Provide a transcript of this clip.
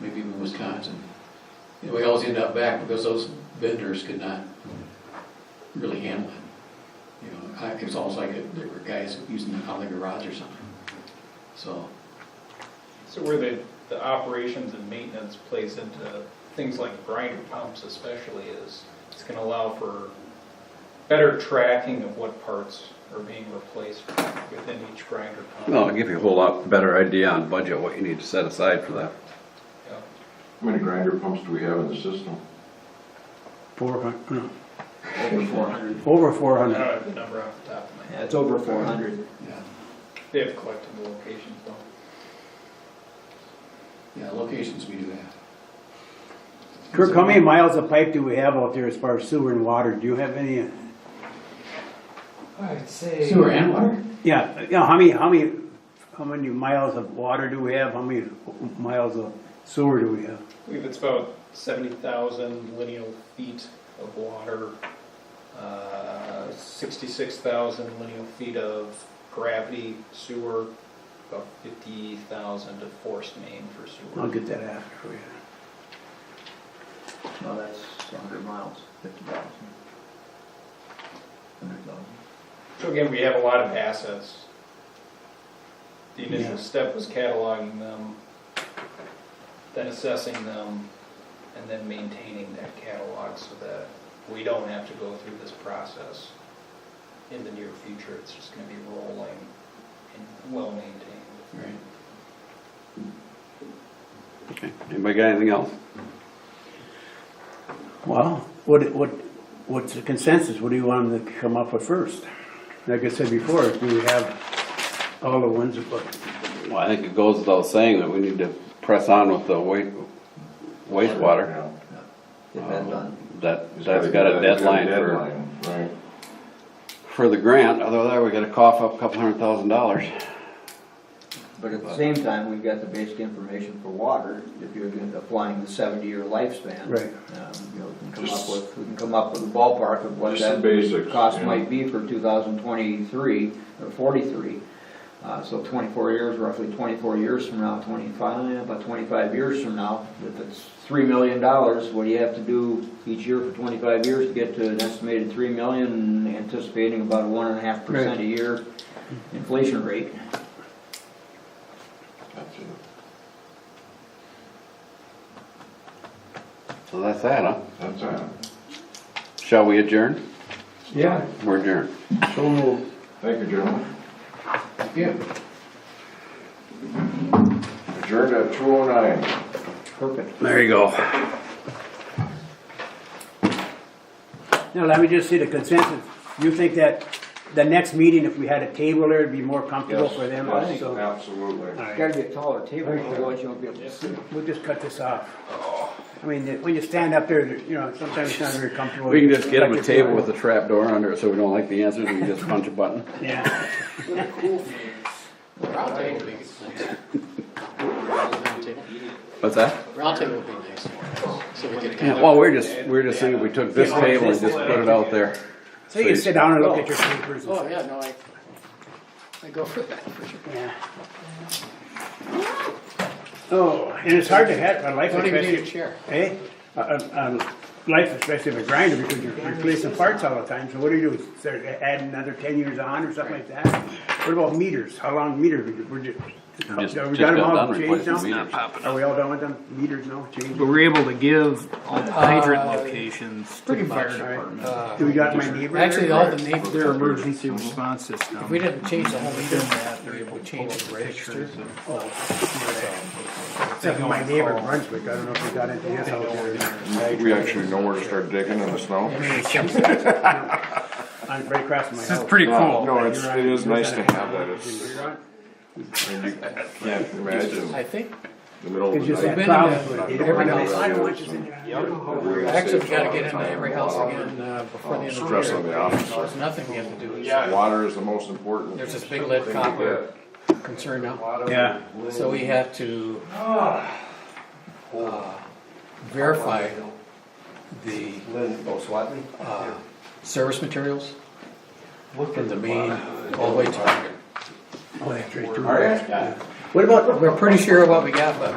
maybe even Wisconsin. You know, we always end up back because those vendors could not really handle it. You know, I- it was almost like it- there were guys using it out of the garage or something. So, So where the, the operations and maintenance plays into things like grinder pumps especially is, it's gonna allow for better tracking of what parts are being replaced within each grinder Well, pump. it'll give you a whole lot better idea on budget, what you need to set aside for that. Yeah. How many grinder pumps do we have in the system? Four hundred, no, Over four hundred. over four I don't hundred. have the number off the top of my Yeah, head. it's over four hundred. yeah, They have collectible locations though. yeah, locations we do that. Kirk, how many miles of pipe do we have out there as far as sewer and water? Do you have any? I'd say. Sewer and water? Yeah, you know, how many, how many, how many miles of water do we have? How many miles of sewer do we have? I believe it's about seventy thousand lineal feet of water, uh, sixty-six thousand lineal feet of gravity sewer, about fifty thousand of forced main for sewer. I'll get that after for you. No, that's a hundred miles, fifty thousand. Hundred thousand. So again, we have a lot of assets. The Yeah. initial step was cataloging them, then assessing them, and then maintaining that catalog so that we don't have to go through this process in the near future. It's just gonna be rolling and well-maintained. Right. Okay. Anybody got anything else? Well, what, what, what's the consensus? What do you want them to come up with first? Like I said before, do we have all the ones, but Well, I think it goes without saying that we need to press on with the wa- wastewater. Yeah. Oh. Depends on, That, It's that's got a it's got a deadline for, deadline, Right. for the grant, although there we gotta cough up a couple hundred thousand dollars. but at the same time, we've got the basic information for water, if you're gonna- applying the seventy-year lifespan. Right. Um, You know, we can come Just- up with, we can come up with a ballpark of what Just the that basics. cost yeah. might be for 2023, or 43. Uh, So 24 years, roughly 24 years from now, 25, eh, about 25 years from now, if it's $3 million, what do you have to do each year for 25 years to get to an estimated 3 million, anticipating about a 1.5% a year inflation rate? That's it. So that's that, huh? That's it. Shall we adjourn? yeah, We're adjourned. so moved. Thank you, gentlemen. Yeah. Adjourned at two oh nine. Perfect. There you go. Now, let me just see the consensus. You think that the next meeting, if we had a table there, it'd be more comfortable Yes, for them yes, also? All Absolutely. It's right, gotta be a taller table, otherwise you won't be able to see. we'll just cut this off. I mean, when you stand up there, you know, sometimes it's not very comfortable. We can just get them a table with a trap door under it so we don't like the answers and we just punch a button. Yeah, Round table would be nice. Round table. What's that? Round table would be nice. So we could kind Yeah, of. well, we're just, we're just saying if we took this table and just put it out there. so you can sit down and look at your papers and Oh, stuff. yeah, no, I, I go for that, for sure. Yeah. Oh, and it's hard to have a life Don't even need a especially, chair. eh? A, a, a life especially of a grinder because you're replacing parts all the time, so what do you do? Start adding another ten years on or something like that? What about meters? How long meters? We're ju- Just- Are uh, we just got them got all done changed replacing meters. now? Are we all done with them? Meters now, changed? But we're able to give all the hydrant locations to the fire All right. department. Do we got my neighbor? there? Actually, all the neighbors, Their emergency response system. we didn't change the whole thing. They're able to change the pictures. of- Except for my neighbor in Brunswick, I don't know if we got into his house there. We actually know where to start digging in the snow. I'm right across from my This is house. pretty cool. Uh, No, it's, it is nice to have that. It's, You're on? can't imagine I think, the middle of It's just the that Been night. problem. in You don't every know. house. I don't want you in there. We're gonna actually, we save gotta a get lot of into time. every house again, uh, before the end of the year. um, Stress on the officer. There's nothing we have to do. Water is the most important. There's this big lead copper concern now, Yeah, so we have to, uh, verify the, uh, service materials from the main all the way to. oh, that's right. too. We're pretty sure what we got, but